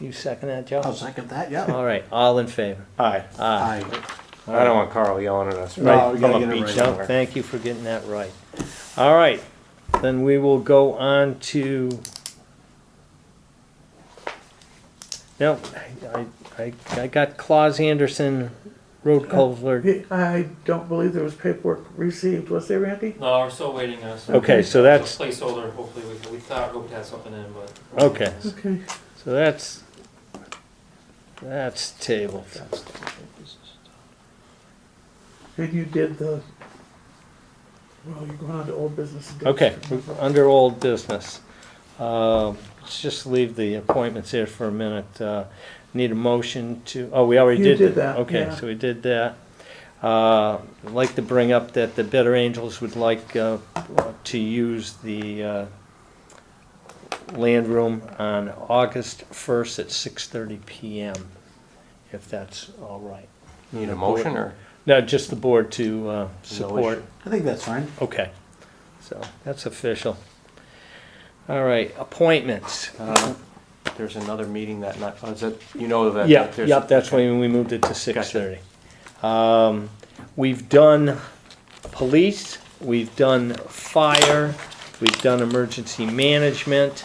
You second that, Joe? I'll second that, yeah. All right, all in favor? Aye. Aye. Aye. I don't want Carl yelling at us. No, right we gotta from a get it beach right. No, somewhere. thank you for getting that right. All right, then we will go on to. No, I, I, I got Claus Anderson, road culvert. I don't believe there was paperwork received, was there, Randy? No, we're still waiting on some. Okay, so that's, Placeholder, hopefully, we, we thought we would have something in, but. okay, Okay. so that's, that's tabled. And you did the, well, you're going on to old business. and Okay, different. under old business. Uh, Let's just leave the appointments here for a minute. Uh, Need a motion to, oh, we already You did. did that. that, Okay, yeah. so we did that. Uh, I'd like to bring up that the Better Angels would like uh, to use the uh, land room on August 1st at 6:30 PM, if that's all right. Need a motion or? No, just the board to uh, support I think that's fine. Okay, so that's official. All right, appointments. Uh, There's another meeting that night. Oh, is that, you know that? Yeah, there's- yep, that's when we moved it to six thirty. Um, we've done police, we've done fire, we've done emergency management.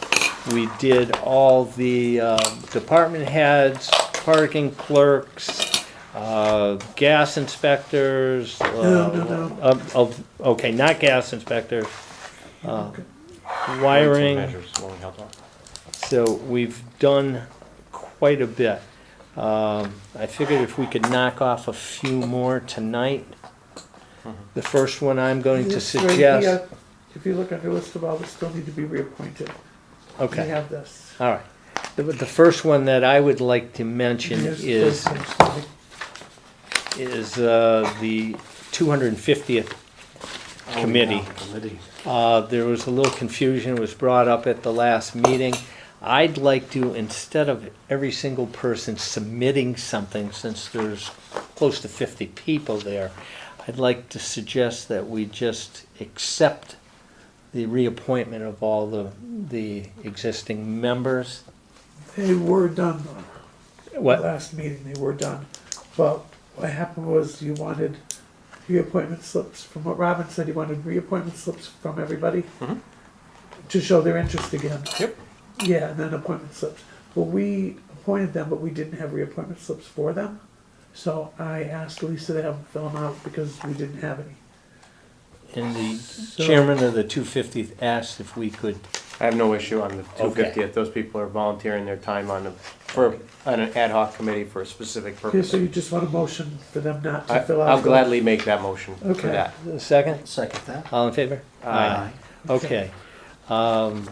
We did all the, uh, department heads, parking clerks, uh, gas inspectors. uh, No, no, no. of- of- okay, not gas inspectors. uh, Wiring. Measures, long held on. Oh, So we've done quite a bit. Um, I figured if we could knock off a few more tonight. The first one I'm going to It's right suggest, here. If you look at the list of all that still need to be reappointed, we okay, have this. all right. The, the first one that I would like to mention Here's the is, first one. is, uh, the two hundred and fiftieth committee. Committee. Uh, There was a little confusion, it was brought up at the last meeting. I'd like to, instead of every single person submitting something, since there's close to 50 people there, I'd like to suggest that we just accept the reappointment of all the, the existing members. They were done though. What? Last meeting, they were done. But what happened was you wanted reappointment slips, from what Robin said, you wanted reappointment slips from everybody to show their interest again. Mm-hmm. Yep. Yeah, and then appointment slips. Well, we appointed them, but we didn't have reappointment slips for them. So I asked Lisa to have them fill them out because we didn't have any. And the chairman of the 250th asked if we could, I have no issue on the two Okay. fiftieth. Those people are volunteering their time on the, for, on an ad hoc committee for a specific Okay, so purpose. you just want a motion for them not I- to fill out. I'll the- gladly make that motion for Okay. that. second, Second that. all in favor? Aye. Okay. Um,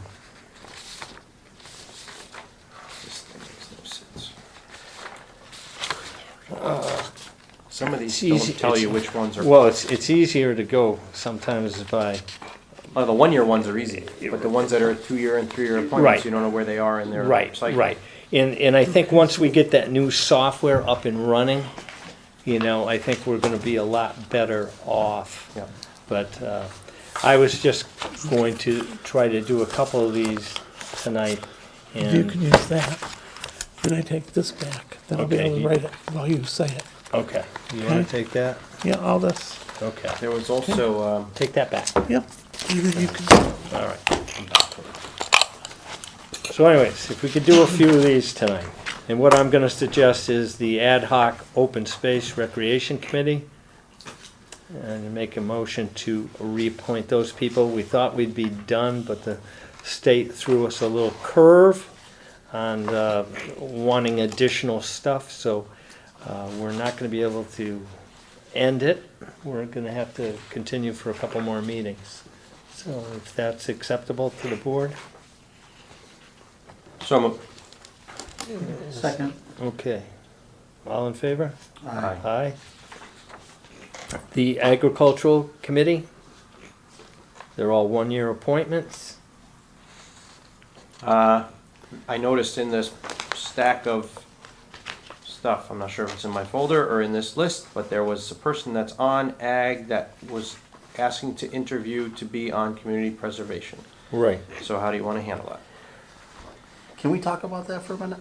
This thing makes no sense. Uh, Some of these It's easy- don't tell it's- you which ones are, Well, it's, it's easier to go sometimes by, oh, the one-year ones are easy, but the ones that are two-year and three-year Right. appointments, you don't know where they are in their right, cycle. right. And, and I think once we get that new software up and running, you know, I think we're gonna be a lot better off. Yeah. But, uh, I was just going to try to do a couple of these tonight You can and, use that. Then I take this back. Then I'll be Okay, able to you- write it while you say it. okay. You wanna take that? Yeah, all this. Okay. There was also, um, Take that back. Yep. And then you can, All right. So anyways, if we could do a few of these tonight, and what I'm gonna suggest is the ad hoc open space recreation committee. And make a motion to reappoint those people. We thought we'd be done, but the state threw us a little curve on uh, wanting additional stuff, so uh, we're not gonna be able to end it. We're gonna have to continue for a couple more meetings. So if that's acceptable to the board? so I'm, Second. Okay. All in favor? Aye. Aye. The Agricultural Committee? They're all one-year appointments? Uh, I noticed in this stack of stuff, I'm not sure if it's in my folder or in this list, but there was a person that's on ag that was asking to interview to be on community preservation. Right. So how do you want to handle that? Can we talk about that for a minute?